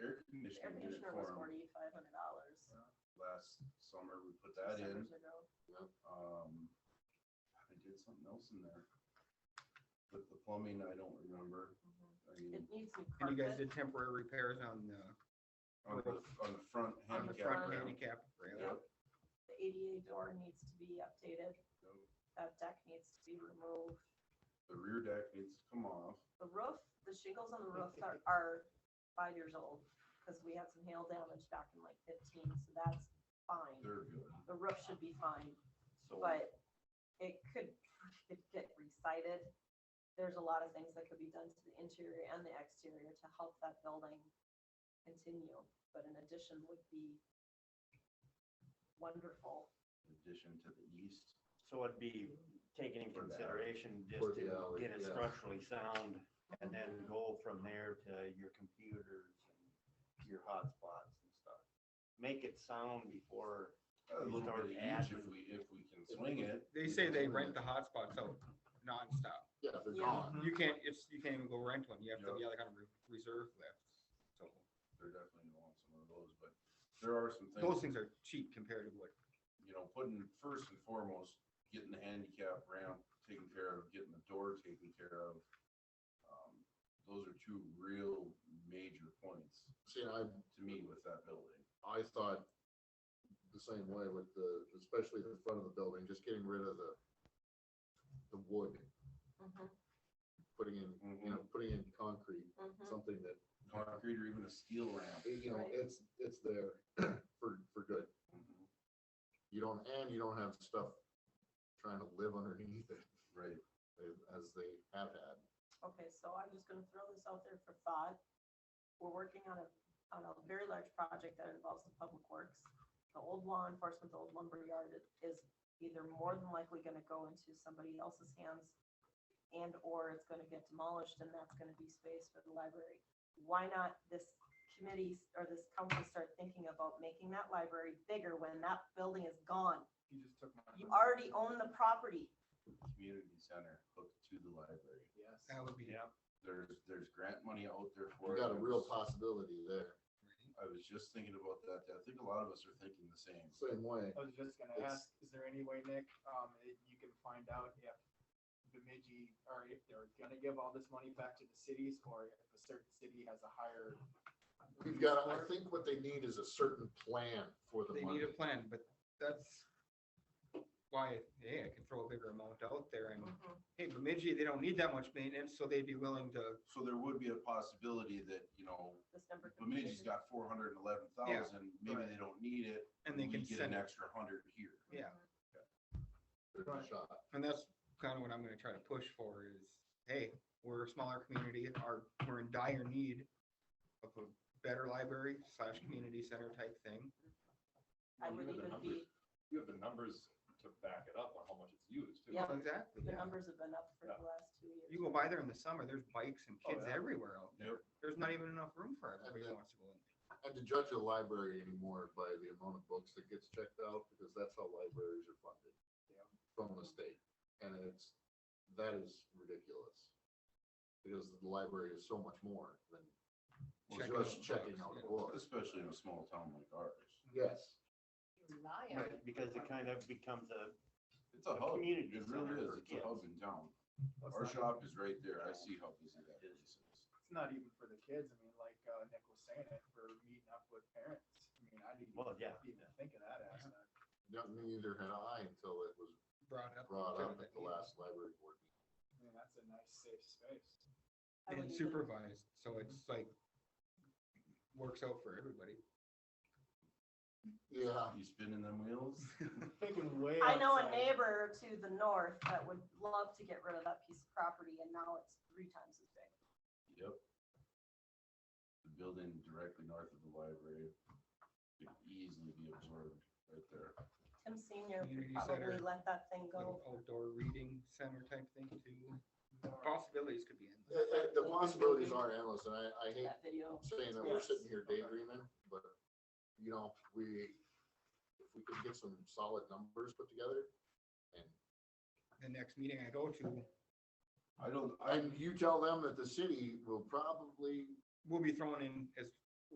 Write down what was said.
air We did it conditioner was for 'em. forty-five hundred Uh, dollars. Last summer, we put that in. Um, I did something else in there. With the plumbing, I don't remember. I Mm-hmm. It mean, needs new Mm. And you guys carpet. did temporary repairs on the, on the, on the front on the handicap. front ramp. handicap ramp. Yep. The ADA door needs to be updated. Yep. That deck needs to be removed. The rear deck needs to come off. The roof, the shingles on the roof are, are five years old because we had some hail damage back in like fifteen, so that's fine. They're good. The roof should be fine, So but it could, it could get recited. There's a lot of things that could be done to the interior and the exterior to help that building continue, but an addition would be wonderful. in addition to the east, So it'd be taken in For the alley. consideration just to For the alley, get it yeah. structurally sound and then go from there to your computers and your hotspots and stuff. Make it sound before, a little We start bit each if adding- we, if we can swing it. They say they rent the hotspots out nonstop. Yeah, they're Yeah. gone. You Mm-hmm. can't, it's, you can't even go rent one. You have to be like on a re- reserve list. So They're definitely gonna want some of those, but there are some things. those things are cheap compared to what, you know, putting first and foremost, getting the handicap ramp taken care of, getting the door taken care of. Um, Those are two real major points See, I, to me with that building. I thought the same way with the, especially the front of the building, just getting rid of the, the wood, Mm-hmm, putting in, you know, putting in concrete, mm-hmm. something that, Concrete or even a steel ramp. you know, Right. it's, it's there for, for good. Mhm. You don't, and you don't have stuff trying to live underneath it Right. as they have had. Okay, so I'm just gonna throw this out there for thought. We're working on a, on a very large project that involves the public works. The old law enforcement, the old lumberyard is- is either more than likely gonna go into somebody else's hands and or it's gonna get demolished and that's gonna be space for the library. Why not this committee or this council start thinking about making that library bigger when that building is gone? You just took my. You already own the property. Community center hooked to the library. that would be. There's, there's grant money out there for. You it. got a real possibility there, I was just thinking about that. I think a lot of us are thinking the same. same way. I was just gonna It's- ask, is there any way, Nick, um, that you can find out if Bemidji, or if they're gonna give all this money back to the cities, or if a certain city has a higher. We've got, I use for it? think what they need is a certain plan for the They money. need a plan, but that's why, hey, I can throw a bigger amount out there and, hey, Bemidji, they don't need that much maintenance, so they'd be willing to, So there would be a possibility that, you know, This number. could be Bemidji's got four hundred and eleven thousand, maybe right. they don't need it. and they we can Get an send it. extra hundred here. Yeah, There's a shot. and that's kind of what I'm gonna try to push for is, hey, we're a smaller community, our, we're in dire need of a better library slash community center type thing. I would even be, you have the numbers to back it up on how much it's used too. Yeah. Exactly, the yeah. numbers have been up for the last two years. You go by there in the summer, there's bikes and Oh, kids yeah. everywhere out there. Yep. There's not even enough room for everybody who Yeah. wants to go in. And to judge a library anymore by the amount of books that gets checked out, because that's how libraries are funded. Yeah. From the state, and it's, that is ridiculous. Because the library is so much more than Well, Check especially- just checking out books. Especially in a small town like ours. Yes. Right, because it kind of becomes a, It's a A hub, it community really center is, for it's a hub in kids. town. Well, Our It's shop not- is right there, I see how busy that place is. it's not even for the kids, I mean, like, uh, Nick was saying, if we're meeting up with parents, I mean, I didn't well, yeah. even think of that aspect. No- Neither had I until it was Brought up. brought kind up of at that the need. last library board meeting. I mean, that's a nice safe space. I would even- And supervised, so it's like, works out for everybody. Yeah, You spinning them wheels? Thinking way. I know a outside. neighbor to the north that would love to get rid of that piece of property and now it's three times as big. Yep. The building directly north of the library could easily be absorbed right there. Tim Senior Community could probably center. let that thing go. Little Outdoor reading center type thing too. Possibilities could be Uh, endless. uh, the possibilities are endless, and I, I hate That video. saying that we're Yes. sitting here daydreaming, but, you know, we, if we could get some solid numbers put together, and, The next meeting I go to, I don't, I, and you tell them that the city will probably, we'll be throwing in as